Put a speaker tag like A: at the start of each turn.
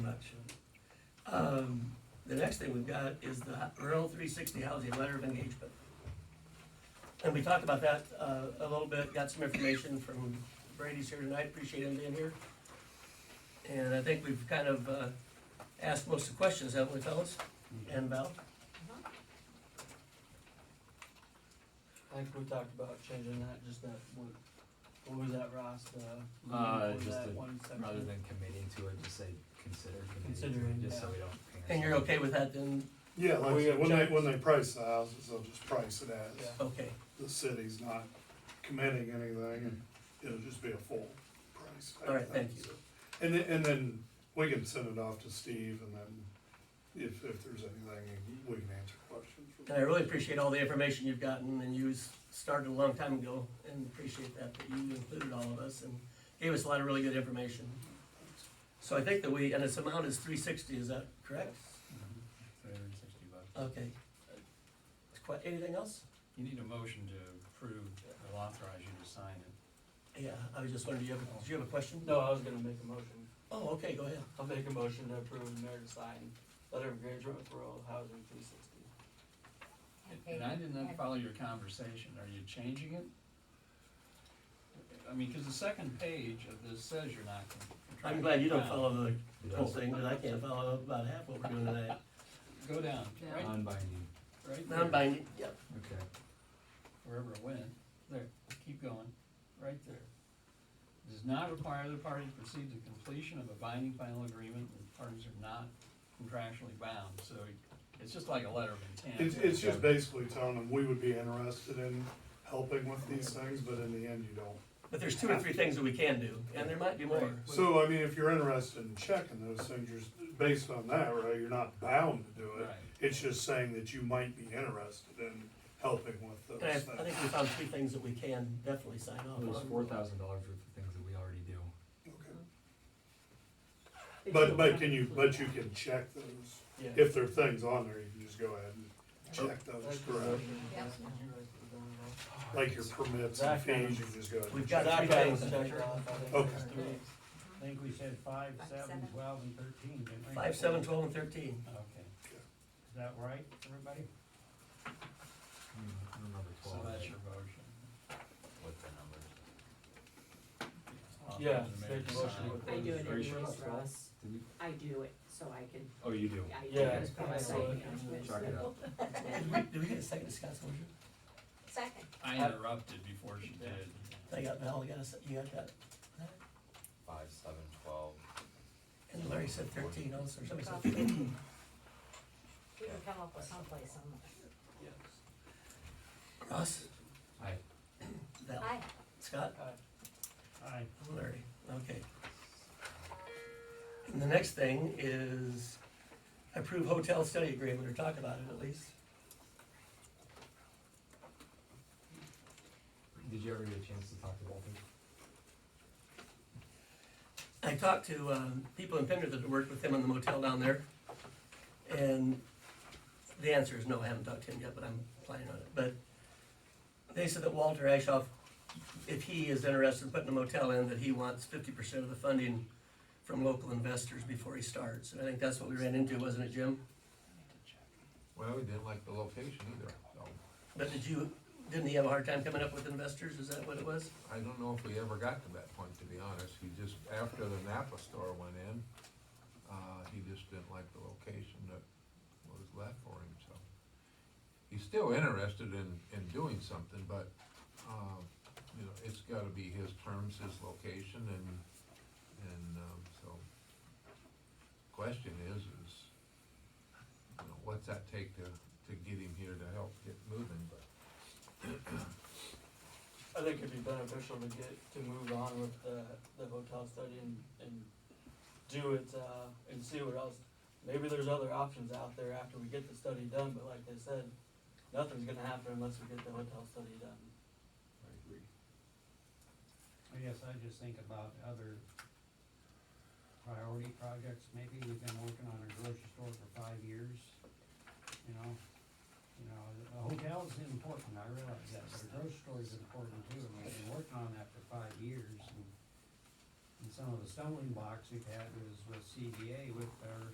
A: Um, the next thing we've got is the rural three sixty housing letter of engagement. And we talked about that, uh, a little bit, got some information from Brady's here tonight, appreciate him being here. And I think we've kind of, uh, asked most of the questions, haven't we, fellas?
B: Mm-hmm.
A: And Val?
B: I think we talked about changing that, just that, what, what was that, Ross, the?
C: Uh,
B: what was
C: just
B: that
C: the-
B: one section?
C: Rather than committing to it, just say consider committing
B: Considering,
C: to it, just so
B: yeah.
C: we don't. pin
A: And you're
C: ourselves.
A: okay with that then?
D: Yeah, like,
B: Oh,
D: I
B: yeah,
D: said, when they,
B: check.
D: when they price the houses, they'll just price it as,
B: Yeah.
A: Okay,
D: the city's not committing anything, and it'll just be a full price. type
A: all right,
D: thing,
A: thank you.
D: so. And then, and then we can send it off to Steve, and then if, if there's anything, we can answer questions. from
A: And I really appreciate all the information you've gotten, and you started a long time ago, and appreciate that, that you included all of us, and gave us a lot of really good information. So I think that we, and its amount is three sixty, is that correct?
E: Three hundred and sixty bucks.
A: Okay. Is quite, anything else?
E: You need a motion to approve or authorize you to sign it.
A: Yeah, I was just wondering, do you have, do you have a question?
B: No, I was gonna make a motion,
A: Oh, okay, go ahead.
B: I'll make a motion to approve the mayor to sign letter of engagement for rural housing three sixty.
E: And I did not follow your conversation, are you changing it? I mean, cause the second page of this says you're not. con-
A: I'm glad you don't
E: contractually
A: follow the whole
C: Yes.
A: thing, but I can't follow about half what we're doing today.
E: bound. Go down,
F: Yeah.
E: right,
C: Non-binding,
E: right there,
A: Non-binding, yep.
C: okay.
E: wherever it went, there, keep going, right there. Does not require the party to proceed to completion of a binding final agreement, and the parties are not contractually bound, so it's just like a letter of intent.
D: It's, it's just basically telling them, we would be interested in helping with these things, but in the end, you don't.
A: But there's two or three things that we can do, and there might be more.
E: Right.
D: So, I mean, if you're interested in checking those things, you're, s- based on that, right, you're not bound to do it.
E: Right.
D: It's just saying that you might be interested in helping with those
A: And I, I
D: things.
A: think we found three things that we can definitely sign off on.
C: Well, There's four thousand dollars worth of things that we already do.
D: Okay. But, but can you, but you can check those,
B: Yeah.
D: if there are things on there, you can just go ahead and check
B: That's
D: those,
B: the
D: correct?
B: motion.
F: Yeah.
B: That's what you guys were doing, right?
D: Like your permits and fees, you can just go ahead and
A: We've
D: check.
A: got three
B: Zach had
A: things.
B: us check it off, I think
D: Okay.
B: there's three.
G: I think we said five,
F: Five,
G: seven,
F: seven.
G: twelve, and thirteen, didn't we?
A: Five, seven, twelve, and thirteen.
E: Okay,
G: Is that right, everybody?
C: Hmm, I don't remember
E: so
C: twelve.
E: that's your motion.
C: What the numbers?
B: Yeah,
E: Authorize the mayor
B: make
E: to
B: a motion
E: sign.
B: with
F: I do it
C: Are you sure
F: anyways,
C: about twelve?
F: Ross.
C: Did we-
F: I do it so I can,
C: Oh, you do?
F: I.
B: Yeah.
F: it's probably
B: Yeah.
F: like,
B: Yeah.
F: I'm just-
C: Chalk it up.
A: Did we- Did we get a second to Scott's motion?
F: Second.
E: I interrupted before she did.
A: I got Val, I got a, se- you got that.
C: Five, seven, twelve.
A: And Larry said thirteen also, or somebody said 13.
F: We can come up with someplace somewhere.
A: Ross,
C: Aye.
A: Val,
F: Hi.
A: Scott,
G: Aye.
A: and Larry, okay. And the next thing is approve hotel study agreement, or talk about it at least.
C: Did you ever get a chance to talk to Walter?
A: I talked to um, people in Pender that worked with him in the motel down there, and the answer is no, I haven't talked to him yet, but I'm planning on it. But they said that Walter Ashoff, if he is interested in putting a motel in, that he wants fifty percent of the funding from local investors before he starts. And I think that's what we ran into, wasn't it, Jim?
H: Well, we didn't like the location either, so
A: But did you, didn't he have a hard time coming up with investors? Is that what it was?
H: I don't know if we ever got to that point, to be honest. He just, after the Napa store went in, uh, he just didn't like the location that was left for him, so. He's still interested in, in doing something, but, uh, you know, it's gotta be his terms, his location, and, and, um, so. Question is, is, you know, what's that take to, to get him here to help get moving, but
B: I think it'd be beneficial to get, to move on with the, the hotel study and, and do it, uh, and see what else. Maybe there's other options out there after we get the study done, but like they said, nothing's gonna happen unless we get the hotel study done.
G: I guess I just think about other priority projects, maybe we've been working on a grocery store for five years, you know? You know, a hotel is important, I realize that, but a grocery store is important too, and we've been working on that for five years. and- And some of the stumbling blocks we've had was with CDA with our